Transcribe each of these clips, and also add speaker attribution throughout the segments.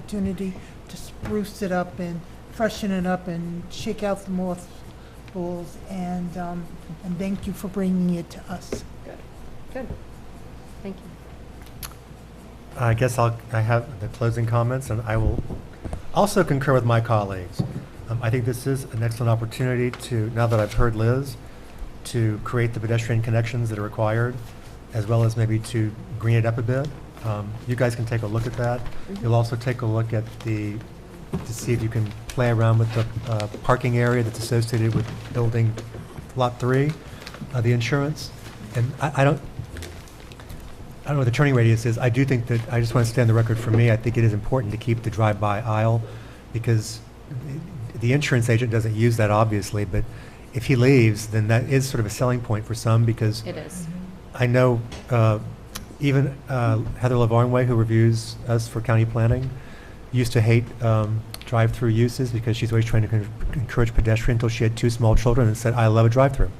Speaker 1: opportunity to spruce it up and freshen it up and shake out the moth balls. And, um, and thank you for bringing it to us.
Speaker 2: Thank you.
Speaker 3: I guess I'll, I have the closing comments, and I will also concur with my colleagues. Um, I think this is an excellent opportunity to, now that I've heard Liz, to create the pedestrian connections that are required, as well as maybe to green it up a bit. Um, You guys can take a look at that. You'll also take a look at the, to see if you can play around with the uh, parking area that's associated with building Lot 3, uh, the insurance. And I I don't, I don't know what the turning radius is. I do think that, I just want to stand the record for me, I think it is important to keep the drive-by aisle, because the- the insurance agent doesn't use that, obviously, but if he leaves, then that is sort of a selling point for some, because
Speaker 2: It is.
Speaker 3: I know uh, even uh, Heather Lavarnway, who reviews us for county planning, used to hate um, drive-through uses because she's always trying to con- encourage pedestrian until she had two small children and said, "I love a drive-through."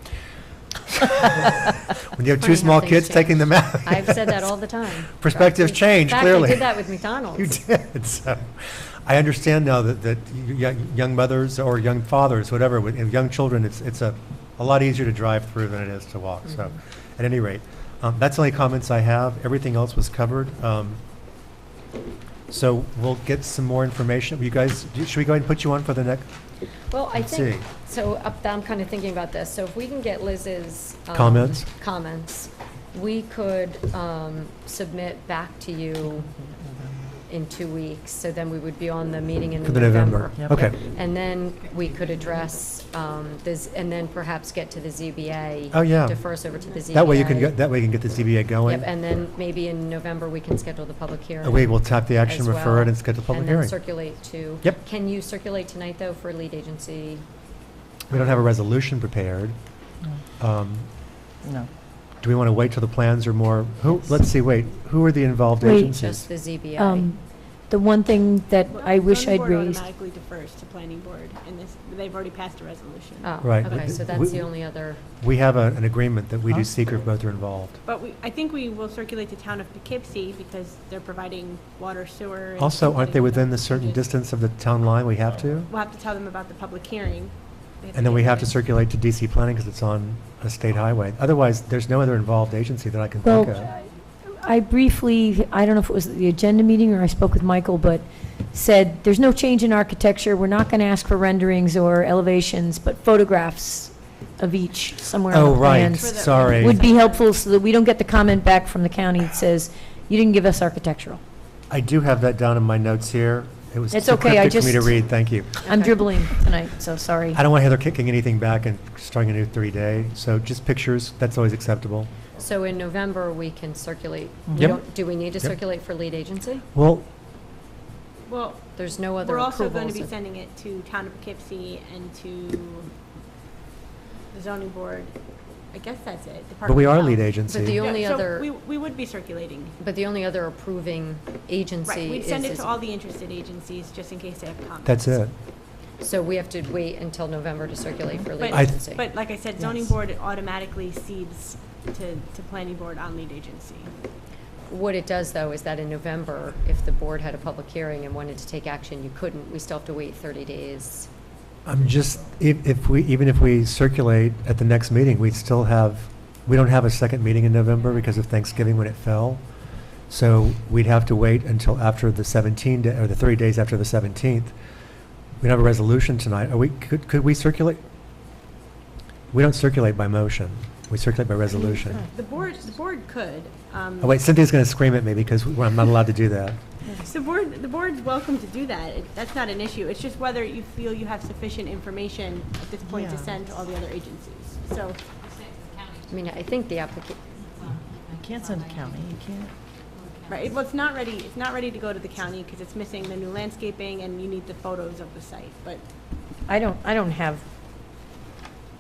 Speaker 3: When you have
Speaker 2: Funny how
Speaker 3: two small
Speaker 2: things
Speaker 3: kids taking them out.
Speaker 2: I've said that all the time.
Speaker 3: Perspectives change,
Speaker 2: In fact, I
Speaker 3: clearly.
Speaker 2: did that with
Speaker 3: You
Speaker 2: McDonald's.
Speaker 3: did, so. I understand now that, that y- y- young mothers or young fathers, whatever, with and young children, it's, it's a, a lot easier to drive through than it is to walk,
Speaker 2: Mm-hmm.
Speaker 3: so, at any rate. Um, that's the only comments I have, everything else was covered. Um, so we'll get some more information, you guys, do- should we go ahead and put you on for the next?
Speaker 2: Well, I
Speaker 3: Let's
Speaker 2: think,
Speaker 3: see.
Speaker 2: so up- I'm kind of thinking about this. So if we can get Liz's. um,
Speaker 3: Comments?
Speaker 2: Comments, we could um, submit back to you in two weeks. So then we would be on the meeting in
Speaker 3: For the November.
Speaker 2: November.
Speaker 3: Okay,
Speaker 2: And then we could address um, this, and then perhaps get to the ZBA.
Speaker 3: Oh, yeah.
Speaker 2: Defer us over to the ZBA.
Speaker 3: that way you can, get that way you can get the ZBA
Speaker 2: Yep,
Speaker 3: going.
Speaker 2: and then maybe in November, we can schedule the public hearing.
Speaker 3: Uh, We will tap the action,
Speaker 2: as
Speaker 3: refer
Speaker 2: well,
Speaker 3: it, and schedule a public
Speaker 2: And then
Speaker 3: hearing.
Speaker 2: circulate to.
Speaker 3: Yep.
Speaker 2: Can you circulate tonight, though, for lead agency?
Speaker 3: We don't have a resolution prepared.
Speaker 2: Mm.
Speaker 3: Um,
Speaker 4: No.
Speaker 3: Do we want to wait till the plans are more, who, let's see, wait, who are the involved
Speaker 5: Wait.
Speaker 3: agencies?
Speaker 2: Just the ZBA?
Speaker 5: Um, The one thing that I wish I'd
Speaker 6: Planning board
Speaker 5: raised,
Speaker 6: automatically defers to planning board, and this, they've already passed a resolution.
Speaker 2: Oh,
Speaker 3: right,
Speaker 2: Okay,
Speaker 3: we-
Speaker 2: so
Speaker 3: we-
Speaker 2: that's the only other,
Speaker 3: We have a- an agreement that we do seeker if both are involved.
Speaker 6: But we, I think we will circulate to town of Poughkeepsie, because they're providing water, sewer. and
Speaker 3: Also, aren't they
Speaker 6: everything.
Speaker 3: within the certain distance of the town line we have to?
Speaker 6: We'll have to tell them about the public hearing. They
Speaker 3: And then we
Speaker 6: get
Speaker 3: have to
Speaker 6: notice.
Speaker 3: circulate to DC planning because it's on a state highway. Otherwise, there's no other involved agency that I can think of.
Speaker 5: well, I briefly, I don't know if it was at the agenda meeting or I spoke with Michael, but said, there's no change in architecture, we're not going to ask for renderings or elevations, but photographs of each somewhere on
Speaker 3: Oh,
Speaker 5: the
Speaker 3: right,
Speaker 5: plans.
Speaker 6: For the-
Speaker 3: sorry.
Speaker 5: Would be helpful so that we don't get the comment back from the county that says, you didn't give us architectural.
Speaker 3: I do have that down in my notes here. It was
Speaker 5: It's
Speaker 3: too
Speaker 5: okay, I
Speaker 3: cryptic for me to
Speaker 5: just-
Speaker 3: read, thank you.
Speaker 5: I'm
Speaker 2: Okay.
Speaker 5: dribbling tonight, so sorry.
Speaker 3: I don't want Heather kicking anything back and starting a new three-day, so just pictures, that's always acceptable.
Speaker 2: so in November, we can circulate. We
Speaker 3: Yep.
Speaker 2: don't- Do we need to
Speaker 3: Yep.
Speaker 2: circulate for lead agency?
Speaker 3: Well,
Speaker 6: Well,
Speaker 2: There's no other
Speaker 6: we're
Speaker 2: approvals.
Speaker 6: also going to be
Speaker 2: of-
Speaker 6: sending it to town of Poughkeepsie and to the zoning board. I guess that's it.
Speaker 3: but we
Speaker 6: Department of
Speaker 3: are
Speaker 6: Health.
Speaker 3: lead agency.
Speaker 2: the
Speaker 6: Yeah,
Speaker 2: only
Speaker 6: so
Speaker 2: other-
Speaker 6: We, we would be circulating.
Speaker 2: But the only other approving agency
Speaker 6: Right,
Speaker 2: is.
Speaker 6: we'd send it
Speaker 2: is-
Speaker 6: to all the interested agencies, just in case they have comments.
Speaker 3: That's it.
Speaker 2: So we have to wait until November to circulate for lead
Speaker 6: But-
Speaker 3: I-
Speaker 2: agency.
Speaker 6: But like I said, zoning
Speaker 4: Yes.
Speaker 6: board automatically cedes to, to planning board on lead agency.
Speaker 2: What it does, though, is that in November, if the board had a public hearing and wanted to take action, you couldn't. We still have to wait 30 days.
Speaker 3: I'm just, if, if we, even if we circulate at the next meeting, we still have, we don't have a second meeting in November because of Thanksgiving when it fell. So we'd have to wait until after the 17, da- or the 30 days after the 17th. We don't have a resolution tonight. Are we, could, could we circulate? We don't circulate by motion. We circulate by resolution.
Speaker 6: The board, the board could. um,
Speaker 3: Oh, wait, Cynthia's going to scream at me because we- I'm not allowed to do that.
Speaker 6: The board, the board's welcome to do that. It- That's not an issue. It's just whether you feel you have sufficient information at this point to
Speaker 4: Yeah.
Speaker 6: send to all the other agencies. So,
Speaker 2: I mean, I think the applica,
Speaker 4: You can't send to county, you can't.
Speaker 6: right, well, it's not ready, it's not ready to go to the county because it's missing the new landscaping and you need the photos of the site, but
Speaker 5: I don't, I don't have,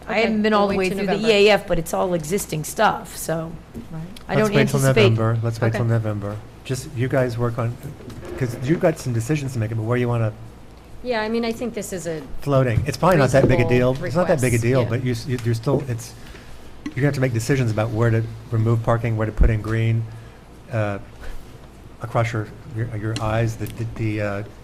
Speaker 5: I
Speaker 2: Okay,
Speaker 5: haven't been
Speaker 2: we'll
Speaker 5: all the
Speaker 2: wait
Speaker 5: way
Speaker 2: till
Speaker 5: through the
Speaker 2: November.
Speaker 5: EAF, but it's all existing stuff, so I don't
Speaker 3: Let's wait till
Speaker 5: anticipate.
Speaker 3: November. Let's wait till
Speaker 2: Okay.
Speaker 3: November. Just, you guys work on, because you've got some decisions to make, but where you want to
Speaker 2: yeah, I mean, I think this is a,
Speaker 3: floating. It's probably not that big a deal.
Speaker 2: Reasonable
Speaker 3: It's not that big a
Speaker 2: request,
Speaker 3: deal,
Speaker 2: yeah.
Speaker 3: but you, s- you- you're still, it's, you're gonna have to make decisions about where to remove parking, where to put in green. Uh, across your, your your eyes, the, the- the uh,